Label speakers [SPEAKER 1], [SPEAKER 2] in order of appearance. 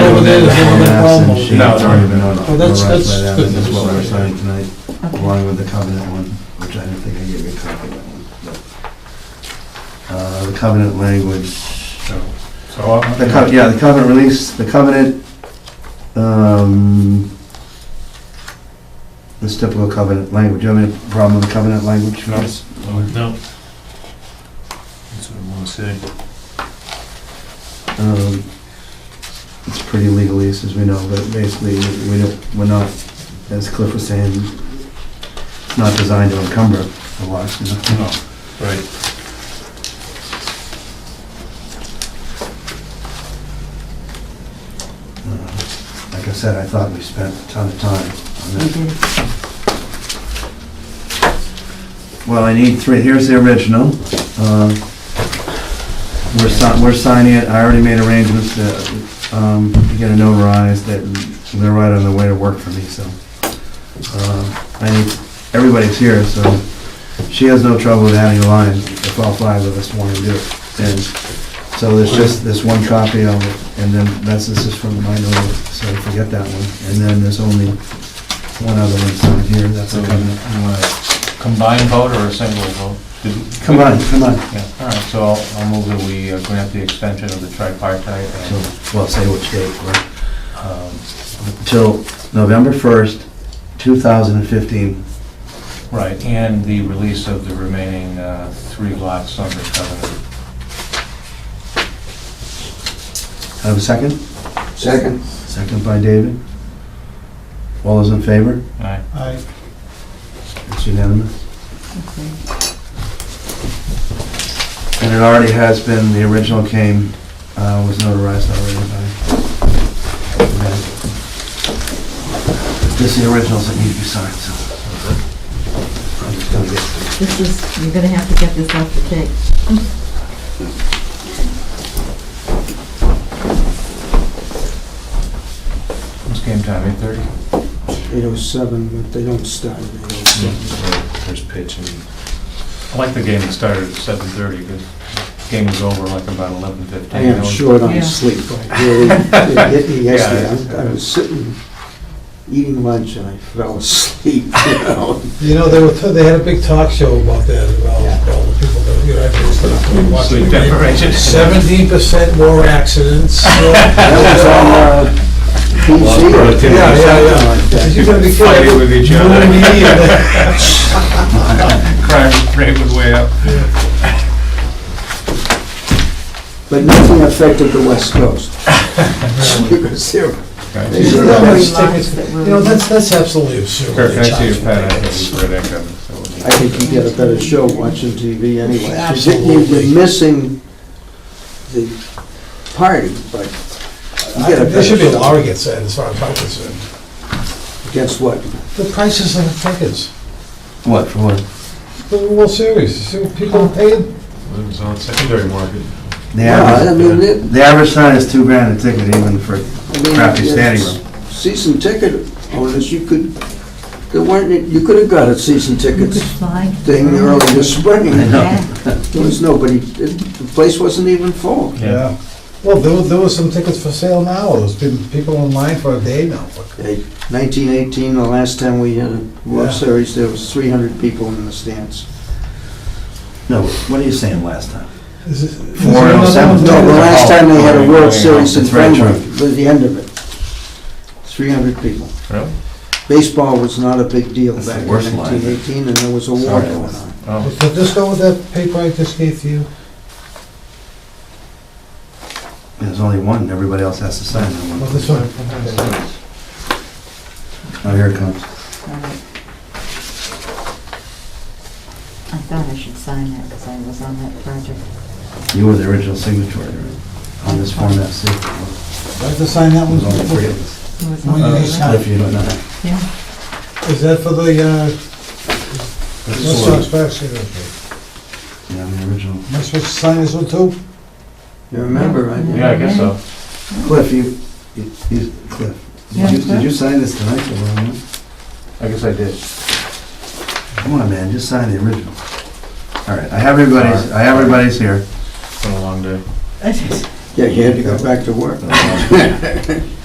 [SPEAKER 1] is, the one that Paul
[SPEAKER 2] No,
[SPEAKER 1] moved.
[SPEAKER 2] it's
[SPEAKER 3] No, it's already been
[SPEAKER 2] notified.
[SPEAKER 1] Oh, that's-
[SPEAKER 2] No
[SPEAKER 1] that's
[SPEAKER 2] rush by that,
[SPEAKER 1] good
[SPEAKER 2] This is
[SPEAKER 1] news.
[SPEAKER 2] what we're signing tonight,
[SPEAKER 4] Okay.
[SPEAKER 2] along with the covenant one, which I do not think I gave you a copy of that one. but, uh, The covenant language,
[SPEAKER 3] So, uh,
[SPEAKER 2] the co- yeah, the covenant release, the covenant, um, this typical covenant language, you have any problem with the covenant language?
[SPEAKER 3] No.
[SPEAKER 2] Chris?
[SPEAKER 5] No. That's what I want to say.
[SPEAKER 2] Um, It's pretty legalese, as we know, but basically, we don't, we're not, as Cliff was saying, it's not designed to encumber the lot, you know?
[SPEAKER 3] No,
[SPEAKER 5] Right.
[SPEAKER 2] Like I said, I thought we spent a ton of time on
[SPEAKER 4] We
[SPEAKER 2] that.
[SPEAKER 4] did.
[SPEAKER 2] Well, I need three, here's the original. Uh, We're si- we're signing it, I already made arrangements to um, get it notarized, that they're right on the way to work for me, so. uh, I need, everybody's here, so she has no trouble with adding a line if all five of us want to do it. And so there's just this one copy of it, and then that's, this is from my note, so forget that one. And then there's only one other one signed here, that's
[SPEAKER 3] so
[SPEAKER 2] a
[SPEAKER 3] you
[SPEAKER 2] covenant.
[SPEAKER 3] want a combined vote or a single vote? Did-
[SPEAKER 2] Come on, come on.
[SPEAKER 3] Yeah, all right, so I'll I'll move that we uh, grant the extension of the tripartite
[SPEAKER 2] So,
[SPEAKER 3] and,
[SPEAKER 2] well, say which date, right?
[SPEAKER 3] um,
[SPEAKER 2] Till November 1st, 2015.
[SPEAKER 3] right, and the release of the remaining uh, three lots under covenant.
[SPEAKER 2] Have a second?
[SPEAKER 6] Second.
[SPEAKER 2] Second by David. All those in favor?
[SPEAKER 3] All right,
[SPEAKER 1] I,
[SPEAKER 2] It's unanimous.
[SPEAKER 4] Okay.
[SPEAKER 2] And it already has been, the original came, uh, was notarized already by... This is the originals that need to be signed, so... I'm just gonna get-
[SPEAKER 4] This is, you're gonna have to get this off the tape.
[SPEAKER 3] it's game time, 8:30.
[SPEAKER 6] 807, but they don't start at 807.
[SPEAKER 3] Mm-hmm.
[SPEAKER 5] First pitch and
[SPEAKER 3] I like the game that started at 7:30, because game was over like about 11:15.
[SPEAKER 6] I am short
[SPEAKER 4] Yeah.
[SPEAKER 6] on sleep. I really- It hit me yesterday.
[SPEAKER 3] Yeah.
[SPEAKER 6] I'm- I was sitting, eating lunch, and I fell asleep, you know?
[SPEAKER 1] you know, they were, they had a big talk show about that, about
[SPEAKER 6] Yeah.
[SPEAKER 1] all the people that, you know, everyone's gonna watch
[SPEAKER 3] Sleep
[SPEAKER 1] it.
[SPEAKER 3] deprivation.
[SPEAKER 1] Seventeen percent more accidents.
[SPEAKER 6] That was on uh,
[SPEAKER 5] Lost
[SPEAKER 6] PC or
[SPEAKER 5] productivity.
[SPEAKER 1] Yeah, yeah, yeah.
[SPEAKER 6] something like that.
[SPEAKER 1] You're gonna be
[SPEAKER 3] Fighting
[SPEAKER 1] careful.
[SPEAKER 3] with each
[SPEAKER 1] You
[SPEAKER 3] other.
[SPEAKER 1] and me and-
[SPEAKER 3] Crime rate was way up.
[SPEAKER 6] But nothing affected the West Coast. Because they're-
[SPEAKER 3] Okay.
[SPEAKER 6] they
[SPEAKER 1] Yeah,
[SPEAKER 6] were-
[SPEAKER 1] that's-
[SPEAKER 4] Three lots that were-
[SPEAKER 1] You know, that's, that's absolutely absurd.
[SPEAKER 3] Kirk, can I see your pen? I think where that comes, so we'll
[SPEAKER 6] I think you get a better show watching TV anyway.
[SPEAKER 1] Absolutely.
[SPEAKER 6] You're missing the party, but you get a
[SPEAKER 1] There should be a
[SPEAKER 6] better
[SPEAKER 1] law
[SPEAKER 6] show.
[SPEAKER 1] against that, as far as I'm concerned.
[SPEAKER 6] Guess what?
[SPEAKER 1] The prices of the tickets,
[SPEAKER 2] What, for what?
[SPEAKER 1] the World Series, see what people paid?
[SPEAKER 5] it was on secondary market.
[SPEAKER 2] The
[SPEAKER 6] Yeah, I mean,
[SPEAKER 2] average,
[SPEAKER 6] it,
[SPEAKER 2] the average sign is two grand a ticket even for
[SPEAKER 6] I mean.
[SPEAKER 2] crappy
[SPEAKER 6] it's-
[SPEAKER 2] standing room.
[SPEAKER 6] Season ticket owners, you could, there weren't, you could have got a season
[SPEAKER 4] You could
[SPEAKER 6] tickets
[SPEAKER 4] slide.
[SPEAKER 6] thing early this spring.
[SPEAKER 2] I know.
[SPEAKER 4] Yeah.
[SPEAKER 6] There was nobody, the place wasn't even full.
[SPEAKER 3] Yeah.
[SPEAKER 1] Well, there were, there were some tickets for sale now, there's been people in line for a day now.
[SPEAKER 6] Okay, 1918, the last time we had a World
[SPEAKER 1] Yeah.
[SPEAKER 6] Series, there was 300 people in the stands.
[SPEAKER 2] No, what are you saying last time?
[SPEAKER 1] Is it- is
[SPEAKER 2] Four oh
[SPEAKER 1] there another
[SPEAKER 2] seven.
[SPEAKER 1] one?
[SPEAKER 6] No, the last time they had a World Series in
[SPEAKER 2] That's right,
[SPEAKER 6] Fenway,
[SPEAKER 2] Charlie.
[SPEAKER 6] was the end of it. 300 people.
[SPEAKER 3] Really?
[SPEAKER 6] Baseball was not a big deal
[SPEAKER 2] That's
[SPEAKER 6] back
[SPEAKER 2] the
[SPEAKER 6] in
[SPEAKER 2] worst line.
[SPEAKER 6] 1918, and there was a war
[SPEAKER 2] Sorry,
[SPEAKER 6] going
[SPEAKER 2] that's-
[SPEAKER 6] on.
[SPEAKER 3] Oh,
[SPEAKER 1] Did this go with that paper I just gave you?
[SPEAKER 2] There's only one, and everybody else has to sign that
[SPEAKER 1] Well,
[SPEAKER 2] one.
[SPEAKER 1] this one.
[SPEAKER 2] Oh, here it comes.
[SPEAKER 4] All right. I thought I should sign that because I was on that project.
[SPEAKER 2] You were the original signatory right, on this Form FC. It
[SPEAKER 1] Do I have to sign that one?
[SPEAKER 2] was only three of us.
[SPEAKER 4] It was
[SPEAKER 1] Well, you
[SPEAKER 4] on
[SPEAKER 1] can
[SPEAKER 4] the-
[SPEAKER 1] sign.
[SPEAKER 2] Cliff, you don't know.
[SPEAKER 4] Yeah.
[SPEAKER 1] Is that for the, uh, what's
[SPEAKER 5] one.
[SPEAKER 1] that special? Am
[SPEAKER 2] Yeah, I'm the original.
[SPEAKER 1] I supposed to sign this one too?
[SPEAKER 6] You remember, right?
[SPEAKER 3] Yeah, I guess so.
[SPEAKER 2] Cliff, you, you- you, Cliff,
[SPEAKER 4] Yeah,
[SPEAKER 2] did you,
[SPEAKER 4] Cliff?
[SPEAKER 2] did you sign this tonight? or what?
[SPEAKER 3] I guess I did.
[SPEAKER 2] Come on, man, just sign the original. All right, I have everybody's, I have everybody's here.
[SPEAKER 3] It's been a long day.
[SPEAKER 6] Yeah, you had to go back to work.